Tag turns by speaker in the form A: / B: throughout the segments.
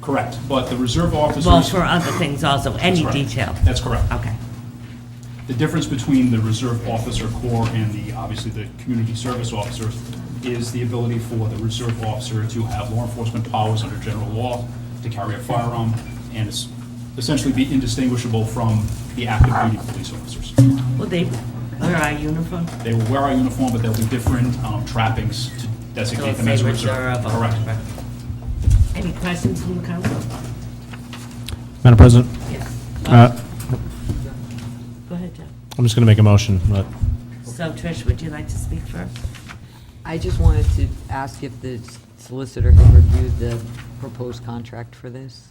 A: Correct, but the reserve officers.
B: Well, for other things also,
A: That's
B: any
A: right.
B: detail.
A: That's correct.
B: Okay.
A: The difference between the reserve officer corps and the, obviously, the community service officers is the ability for the reserve officer to have law enforcement powers under general law, to carry a firearm, and es- essentially be indistinguishable from the active duty police officers.
B: Will they wear our uniform?
A: They will wear our uniform, but there'll be different um, trappings to
B: So
A: designate
B: if
A: them
B: they
A: as a
B: reserve
A: reserve.
B: or
A: Correct.
B: whatever. Any questions from the council?
C: Madam President,
B: Yes.
C: uh,
B: Go ahead, Jeff.
C: I'm just going to make a motion, but
B: So Trish, would you like to speak first?
D: I just wanted to ask if the solicitor had reviewed the proposed contract for this?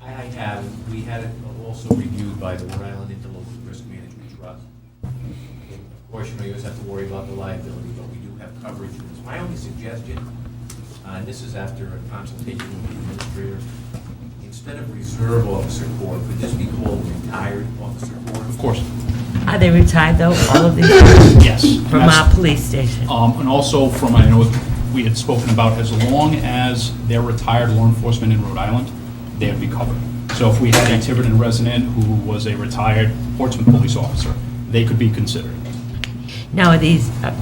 E: I have, we had it also reviewed by the Rhode Island Interlocal Risk Management Trust. Of course, you know, you always have to worry about the liability, but we do have coverage. And it's My only suggestion, uh, and this is after a consultation with the administrators, instead of reserve officer corps, could this be called retired officer corps?
A: Of course,
B: Are they retired though, all of these
A: yes. And
B: from
A: that's-
B: our police station?
A: Um, And also from, I know we had spoken about, as long as they're retired law enforcement in Rhode Island, they'd be covered. So if we had a Tiverton resident who was a retired Portsmouth police officer, they could be considered.
B: Now, are these, uh,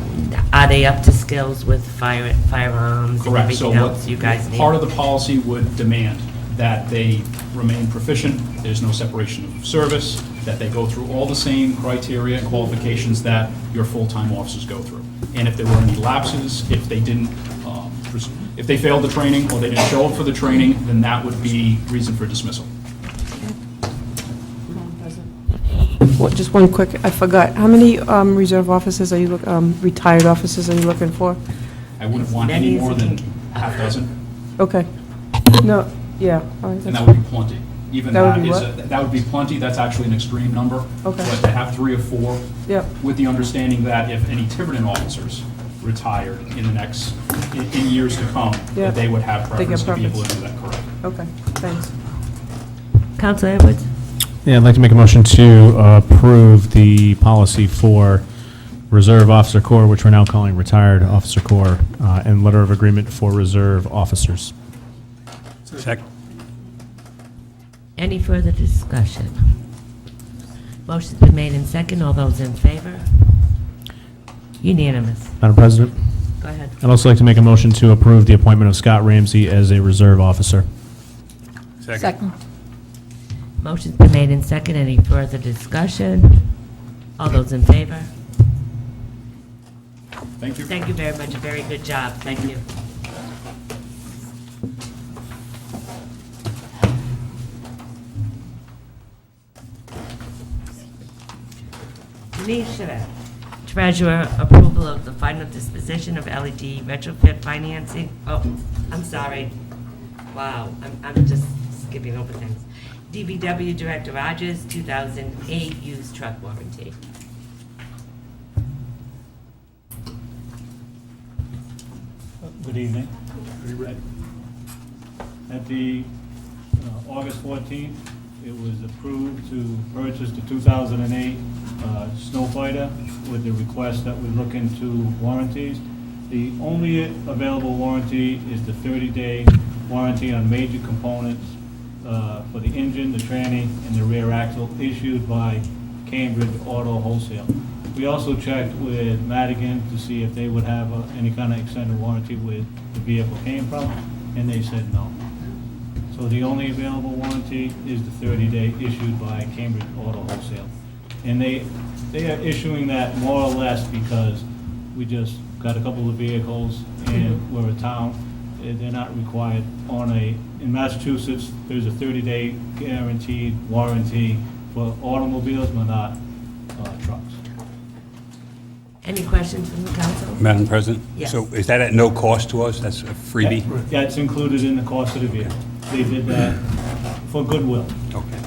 B: are they up to skills with fire firearms and
A: Correct. So
B: everything
A: what-
B: else you guys need?
A: Part of the policy would demand that they remain proficient, there's no separation of service, that they go through all the same criteria and qualifications that your full-time officers go through. And if there were any lapses, if they didn't, um, pres- if they failed the training or they didn't show up for the training, then that would be reason for dismissal.
F: Well, just one quick, I forgot, how many um, reserve officers are you, look- um, retired officers are you looking for?
A: I wouldn't want any
B: Many as
A: more
B: you
A: than
B: can-
A: half dozen,
F: Okay, no, yeah, all right,
A: and
F: that's-
A: that would be plenty. Even
F: That would
A: that
F: be
A: is,
F: what?
A: a- that would be plenty, that's actually an extreme number.
F: Okay.
A: But to have three or four
F: yep,
A: with the understanding that if any Tiverton officers retired in the next, in in years to come,
F: Yeah.
A: that they would have
F: They
A: preference
F: get
A: to be able
F: preference.
A: to do that, correct?
F: okay, thanks.
B: Counselor Edwards?
C: yeah, I'd like to make a motion to uh, approve the policy for Reserve Officer Corps, which we're now calling Retired Officer Corps, uh, and letter of agreement for reserve officers.
B: Any further discussion? Motion's been made in second. All those in favor? Unanimous.
C: Madam President,
B: Go ahead.
C: I'd also like to make a motion to approve the appointment of Scott Ramsey as a reserve officer.
G: Second.
B: Motion's been made in second. Any further discussion? All those in favor?
A: Thank you.
B: Thank you very much. Very good job. Thank you. Nisha, Treasurer, approval of the final disposition of LED retrofit financing. Oh, I'm sorry. Wow, I'm, I'm just skipping over things. DBW Director Rogers, 2008 used truck warranty.
H: Good evening. At the uh, August 14th, it was approved to purchase the 2008 uh, Snow Fighter with the request that we look into warranties. The only available warranty is the 30-day warranty on major components uh, for the engine, the tranny, and the rear axle issued by Cambridge Auto Wholesale. We also checked with Madigan to see if they would have uh, any kind of extended warranty with the vehicle came from, and they said no. So the only available warranty is the 30-day issued by Cambridge Auto Wholesale. And they, they are issuing that more or less because we just got a couple of vehicles and we're a town. Eh, They're not required on a, in Massachusetts, there's a 30-day guaranteed warranty for automobiles, but not uh, trucks.
B: Any questions from the council?
G: Madam President?
B: Yes.
G: So is that at no cost to us? That's a freebie?
H: That's included in the cost of the vehicle. They did that for goodwill.
G: Okay.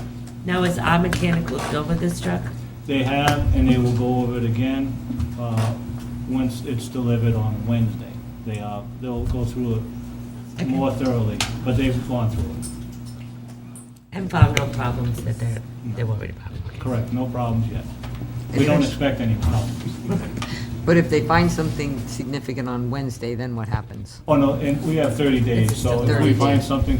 B: Now, is our mechanic looked over this truck?
H: They have, and they will go over it again uh, once it's delivered on Wednesday. They are, they'll go through it more thoroughly, but they've gone through it.
B: And found no problems that they're, they're worried about?
H: Correct, no problems yet. We don't expect any problems.
D: But if they find something significant on Wednessday, then what happens?
H: Oh, no, and we have 30 days,
B: It's still
H: so if we
D: 30 days.
H: find something